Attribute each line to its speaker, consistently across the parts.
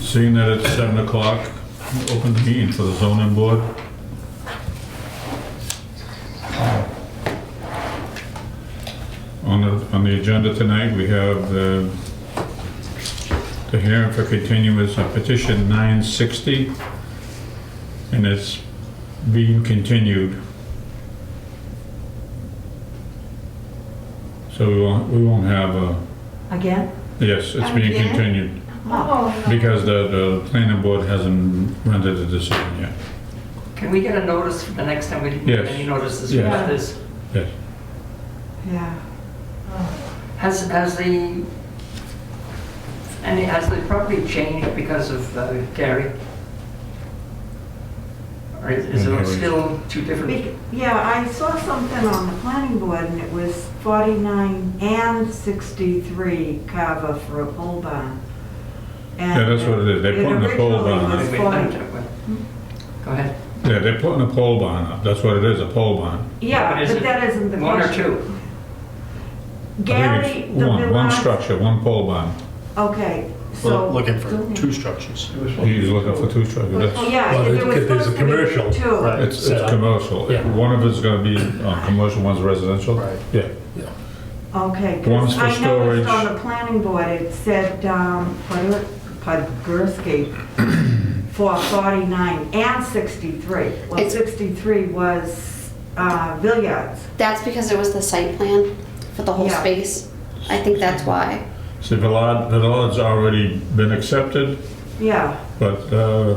Speaker 1: Seeing that it's seven o'clock, open the meeting for the zoning board. On the, on the agenda tonight, we have the, the hearing for continuous on petition 960, and it's being continued. So we won't, we won't have a,
Speaker 2: Again?
Speaker 1: yes, it's being
Speaker 3: Again?
Speaker 1: continued.
Speaker 3: Oh, no.
Speaker 1: Because the, the planning board hasn't rendered a decision yet.
Speaker 4: Can we get a notice for the next time we didn't get
Speaker 1: Yes.
Speaker 4: any notices
Speaker 1: Yes.
Speaker 4: about this?
Speaker 1: Yes.
Speaker 2: Yeah.
Speaker 4: Has, has the, any, has the property changed because of uh, Gary? Or is- is
Speaker 1: Mm,
Speaker 4: it
Speaker 1: Gary.
Speaker 4: still two different?
Speaker 2: Bec- Yeah, I saw something on the planning board and it was 49 and 63 Carver for a pole barn. And
Speaker 1: Yeah, that's what it is. They're putting a pole
Speaker 2: originally
Speaker 1: barn
Speaker 2: was
Speaker 4: Wait, wait,
Speaker 2: 40
Speaker 4: wait, wait. Go ahead.
Speaker 1: Yeah, they're putting a pole barn up, that's what it is, a pole barn.
Speaker 2: Yeah,
Speaker 4: What is
Speaker 2: but
Speaker 4: it?
Speaker 2: that isn't the question.
Speaker 4: One or two?
Speaker 1: I
Speaker 2: Gary,
Speaker 1: think
Speaker 2: the
Speaker 1: it's One, one
Speaker 2: Millar-
Speaker 1: structure, one pole barn.
Speaker 2: Okay, so.
Speaker 5: Well, Looking for two structures.
Speaker 1: He's looking for two
Speaker 2: Oh,
Speaker 1: structures, that's,
Speaker 2: Yeah,
Speaker 6: Well,
Speaker 2: there was
Speaker 6: because there's a
Speaker 2: supposed to be
Speaker 6: commercial,
Speaker 2: two.
Speaker 5: right.
Speaker 1: it's,
Speaker 6: Set
Speaker 1: it's
Speaker 6: up.
Speaker 1: commercial.
Speaker 6: Yeah.
Speaker 1: One of it's gonna be uh, commercial, one's residential.
Speaker 5: Right.
Speaker 1: Yeah,
Speaker 2: Okay,
Speaker 1: One's
Speaker 2: because
Speaker 1: for
Speaker 2: I noticed on
Speaker 1: storage.
Speaker 2: the planning board, it said, um, Pod- Podgorski for 49 and 63. Well,
Speaker 3: It's-
Speaker 2: 63 was uh, Villiards.
Speaker 3: That's because it was the site plan for the whole
Speaker 2: Yeah.
Speaker 3: space. I think that's why.
Speaker 1: see, Villard, Villard's already been accepted,
Speaker 2: Yeah,
Speaker 1: but, uh,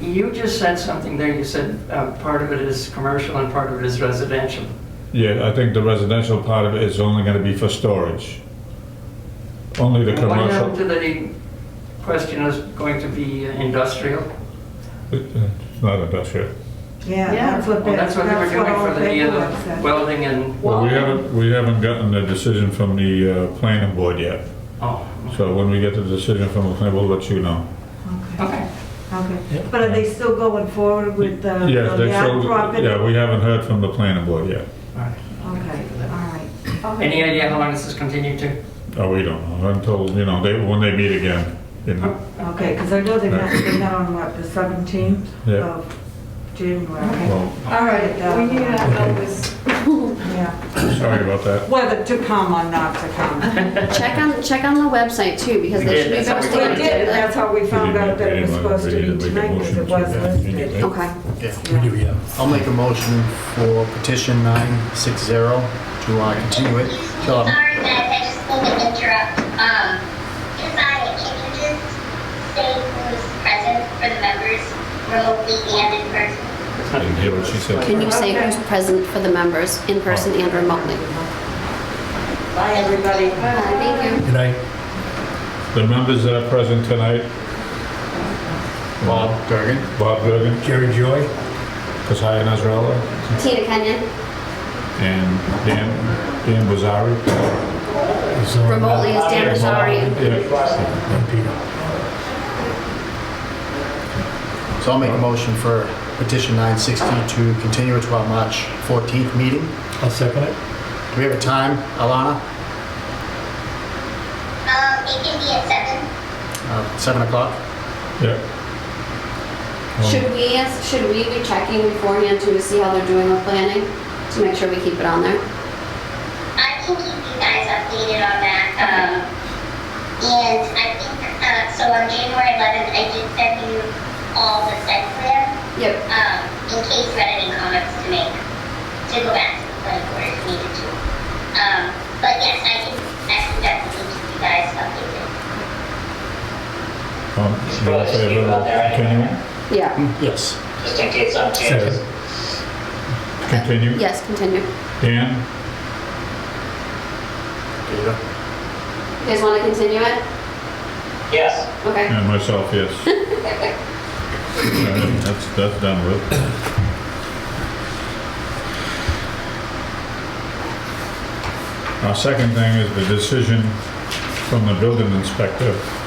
Speaker 4: You just said something there, you said uh, part of it is commercial and part of it is residential.
Speaker 1: yeah, I think the residential part of it is only gonna be for storage. Only the
Speaker 4: What happened
Speaker 1: commercial,
Speaker 4: to the question is going to be uh, industrial?
Speaker 1: uh, it's not industrial.
Speaker 2: yeah,
Speaker 3: Yeah.
Speaker 2: that's what,
Speaker 4: Well,
Speaker 2: they-
Speaker 4: Oh, that's what they were doing
Speaker 2: all
Speaker 4: for the
Speaker 2: they
Speaker 4: uh,
Speaker 2: were said.
Speaker 4: welding and, Oh,
Speaker 1: Well, we haven't, we haven't gotten a decision from the uh, planning board yet.
Speaker 4: oh,
Speaker 1: So when we get the decision from the planning board, we'll let you know.
Speaker 2: Okay,
Speaker 4: okay.
Speaker 2: okay. But are they still going forward with Uh, the
Speaker 1: Yes, they
Speaker 2: Villiard
Speaker 1: still,
Speaker 2: property?
Speaker 1: yeah, we haven't heard from the planning board yet.
Speaker 4: All right.
Speaker 2: Okay, all right.
Speaker 4: Any idea how long this is continued to?
Speaker 1: Oh, we don't know until, you know, they, when they meet again. you know.
Speaker 2: Okay, because I know they met, they met on what, the 17th
Speaker 1: Yeah.
Speaker 2: of January?
Speaker 1: Well,
Speaker 7: All right, we need to have this.
Speaker 2: uh, Yeah.
Speaker 1: sorry about that.
Speaker 2: whether to come or not to come.
Speaker 3: Check on, check on the website too, because
Speaker 4: We
Speaker 3: they
Speaker 4: did,
Speaker 3: should be
Speaker 4: that's how we
Speaker 3: posting.
Speaker 2: We
Speaker 4: did
Speaker 3: it.
Speaker 4: it.
Speaker 2: did, that's how we found out that it was
Speaker 1: Anyway,
Speaker 2: supposed to
Speaker 1: we
Speaker 2: be
Speaker 1: need to make a
Speaker 2: tonight, because it
Speaker 1: motion to
Speaker 2: was
Speaker 1: that meeting,
Speaker 2: listed.
Speaker 1: right?
Speaker 3: Okay.
Speaker 5: Yeah.
Speaker 6: We do, yeah.
Speaker 5: I'll make a motion for petition 960 to uh, continue it till our
Speaker 8: Sorry, guys, I just need to interrupt. Um, Cassandra, can you just say who's present for the members remotely and in person?
Speaker 1: I Didn't hear what she said.
Speaker 3: Can you say who's present for the members, in person and remotely?
Speaker 2: Bye, everybody.
Speaker 3: Hi, Uh, Thank you.
Speaker 6: Good night.
Speaker 1: The members that are present tonight,
Speaker 5: Bob Gergen.
Speaker 1: Bob Gergen,
Speaker 6: Jerry Joy?
Speaker 1: Kasia Nazrela,
Speaker 3: Tina Kenyon,
Speaker 1: and Dan, Dan Bazari.
Speaker 6: is on-
Speaker 3: remotely is Dan Nazari.
Speaker 1: Yeah.
Speaker 6: And Peter.
Speaker 5: So I'll make a motion for petition 960 to continue it to our March 14th meeting.
Speaker 6: I'll second it.
Speaker 5: Do we have a time, Alana?
Speaker 8: Um, it can be at seven.
Speaker 5: Uh, 7 o'clock?
Speaker 1: Yeah.
Speaker 3: Should we, should we be checking beforehand to see how they're doing with planning, to make sure we keep it on there?
Speaker 8: I can keep you guys updated on that. Um, and I think, uh, so on January 11th, I did send you all the site plan,
Speaker 3: Yep.
Speaker 8: um, in case you had any comments to make, to go back to the planning board if needed to. Um, but yes, I can, I can definitely keep you guys updated.
Speaker 1: Um, um, all in favor of continuing?
Speaker 3: Yeah.
Speaker 4: Mm-hmm.
Speaker 5: Yes.
Speaker 9: just in case I'm changing.
Speaker 1: Continue.
Speaker 3: Yes, continue.
Speaker 1: Dan?
Speaker 5: Peter?
Speaker 3: You guys want to continue it?
Speaker 9: Yes.
Speaker 3: Okay.
Speaker 1: And myself, yes. Uh, That's, that's done with. Our second thing is the decision from the building inspector